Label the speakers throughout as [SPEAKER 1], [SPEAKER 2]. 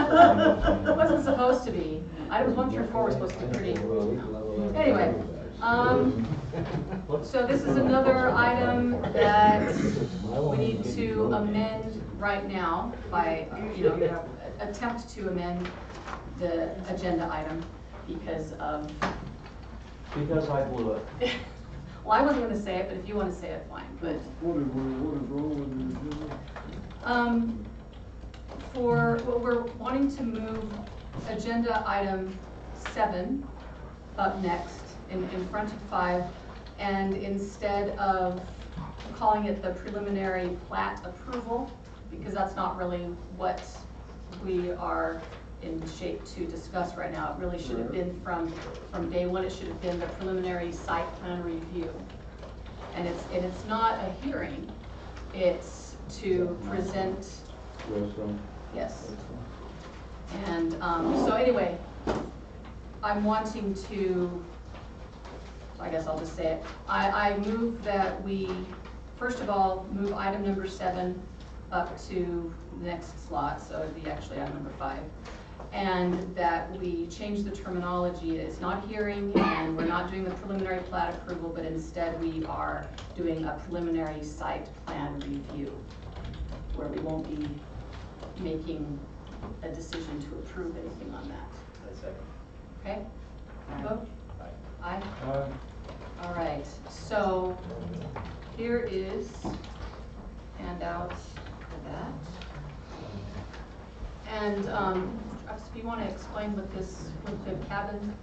[SPEAKER 1] It wasn't supposed to be. Items one through four were supposed to be pretty. Anyway, um, so this is another item that we need to amend right now by, you know, attempt to amend the agenda item because of,
[SPEAKER 2] Because I blew it.
[SPEAKER 1] well, I wasn't gonna say it, but if you wanna say it, fine, but,
[SPEAKER 3] What is, what is wrong with the agenda?
[SPEAKER 1] um, for, well, we're wanting to move agenda item seven up next in, in front of five. And instead of calling it the preliminary plat approval, because that's not really what we are in shape to discuss right now. It really should have been from, from day one, it should have been the preliminary site plan review. And it's, and it's not a hearing, it's to present, yes. And, um, so anyway, I'm wanting to, I guess I'll just say it. I, I move that we, first of all, move item number seven up to the next slot, so it'd be actually item number five. And that we change the terminology, it's not hearing, and we're not doing the preliminary plat approval, but instead we are doing a preliminary site plan review, where we won't be making a decision to approve anything on that. Okay? Vote? Aye? All right, so here is handout for that. And, um, Travis, if you wanna explain what this, what the cabin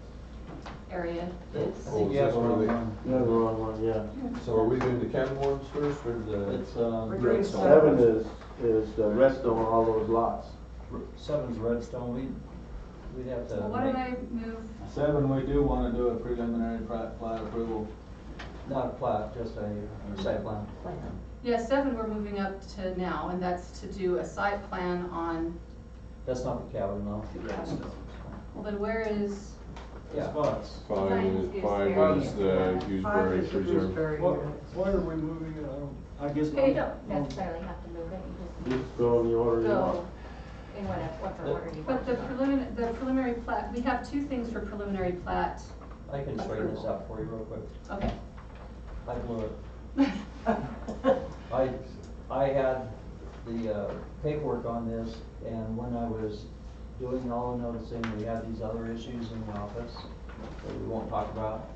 [SPEAKER 1] area is?
[SPEAKER 4] Oh,
[SPEAKER 2] Yeah,
[SPEAKER 4] is this
[SPEAKER 2] the
[SPEAKER 4] where
[SPEAKER 2] wrong
[SPEAKER 4] they-
[SPEAKER 2] one. Yeah, the wrong one, yeah.
[SPEAKER 4] So are we doing the cabin ones first or the?
[SPEAKER 2] It's,
[SPEAKER 5] uh,
[SPEAKER 2] um,
[SPEAKER 4] Red
[SPEAKER 2] seven is, is the redstone, all those lots.
[SPEAKER 5] Seven's Redstone, we, we'd have to.
[SPEAKER 1] Well, why don't
[SPEAKER 5] make-
[SPEAKER 1] I move,
[SPEAKER 5] Seven, we do wanna do a preliminary plat, plat approval. Not a plat, just a site plan.
[SPEAKER 1] yeah, seven we're moving up to now, and that's to do a site plan on
[SPEAKER 5] That's not the cabin, no.
[SPEAKER 1] the cabin. Well, then where is,
[SPEAKER 5] Yeah. Spots.
[SPEAKER 4] Five is, five is the Gooseberry Preserve.
[SPEAKER 3] Why, why are we moving it? I don't, I guess.
[SPEAKER 1] Here you
[SPEAKER 3] not.
[SPEAKER 6] don't necessarily have to move it, you
[SPEAKER 2] You go in the order
[SPEAKER 6] just
[SPEAKER 2] you want.
[SPEAKER 6] go in whatever, whatever order you
[SPEAKER 1] but
[SPEAKER 6] want.
[SPEAKER 1] the preliminary, the preliminary plat, we have two things for preliminary plat,
[SPEAKER 5] I can straighten this out for you real quick.
[SPEAKER 1] okay.
[SPEAKER 5] I blew it. I, I had the uh, paperwork on this, and when I was doing all the noticing, we had these other issues in the office that we won't talk about.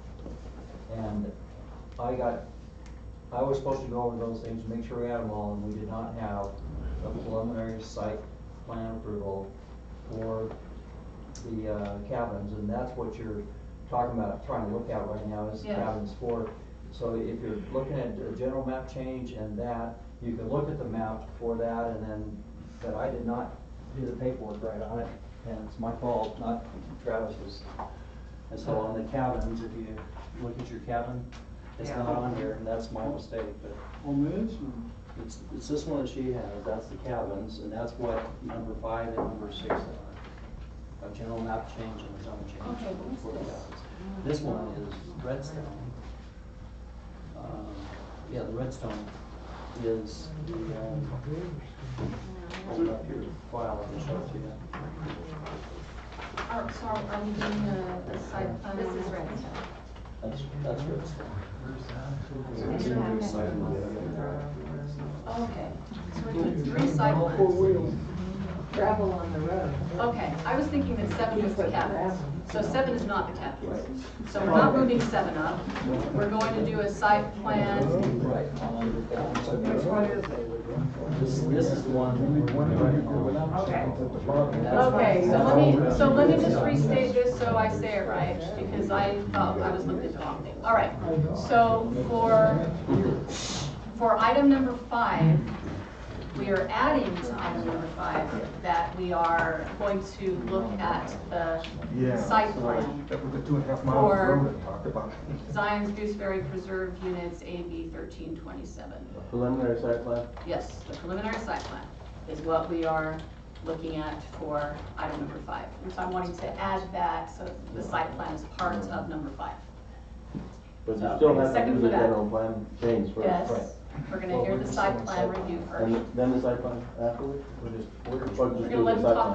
[SPEAKER 5] And I got, I was supposed to go over those things, make sure we had them all, and we did not have a preliminary site plan approval for the uh, cabins, and that's what you're talking about, trying to look at right now, is
[SPEAKER 1] Yes.
[SPEAKER 5] cabins for. So if you're looking at a general map change and that, you can look at the map for that, and then, but I did not do the paperwork right on it, and it's my fault, not Travis's. And so on the cabins, if you look at your cabin, it's not on here, and that's my mistake, but
[SPEAKER 3] On this, or-
[SPEAKER 5] it's, it's this one that she has, that's the cabins, and that's what number five and number six are. A general map change and a zone change.
[SPEAKER 1] Okay, what is
[SPEAKER 5] for the
[SPEAKER 1] this?
[SPEAKER 5] cabins. This one is redstone. Um, Yeah, the redstone is the, um, hold up your file and show it to you.
[SPEAKER 1] Oh, sorry, I'm doing the, the site plan.
[SPEAKER 6] This is Redstone.
[SPEAKER 5] That's, that's redstone.
[SPEAKER 1] Oh, Okay, so we're doing three site
[SPEAKER 3] four
[SPEAKER 1] plans.
[SPEAKER 3] wheels.
[SPEAKER 7] Gravel on the road.
[SPEAKER 1] Okay, I was thinking that seven was the cabins. So seven is not the cabins. So we're not moving seven up. We're going to do a site plan.
[SPEAKER 5] Right, on the cabins.
[SPEAKER 7] Which one is it?
[SPEAKER 5] This, this is the one. that we're doing on.
[SPEAKER 1] Okay, so let me, so let me just restate this so I say it right, because I thought I was looking at the wrong thing. All right, so for, for item number five, we are adding to item number five that we are going to look at the site plan.
[SPEAKER 8] That was the two and a half
[SPEAKER 1] Or-
[SPEAKER 8] mile road I talked about.
[SPEAKER 1] Zion's Gooseberry Preserve Units AB thirteen twenty-seven.
[SPEAKER 2] Preliminary site plan?
[SPEAKER 1] Yes, the preliminary site plan is what we are looking at for item number five. And so I'm wanting to add that, so the site plan is part of number five.
[SPEAKER 2] But you
[SPEAKER 1] So,
[SPEAKER 2] still have to
[SPEAKER 1] second
[SPEAKER 2] do
[SPEAKER 1] for
[SPEAKER 2] the
[SPEAKER 1] that.
[SPEAKER 2] general plan change first.
[SPEAKER 1] Yes, we're gonna hear the site plan review first.
[SPEAKER 2] And then the site plan afterward? We're just, we're just.
[SPEAKER 1] We're gonna let them talk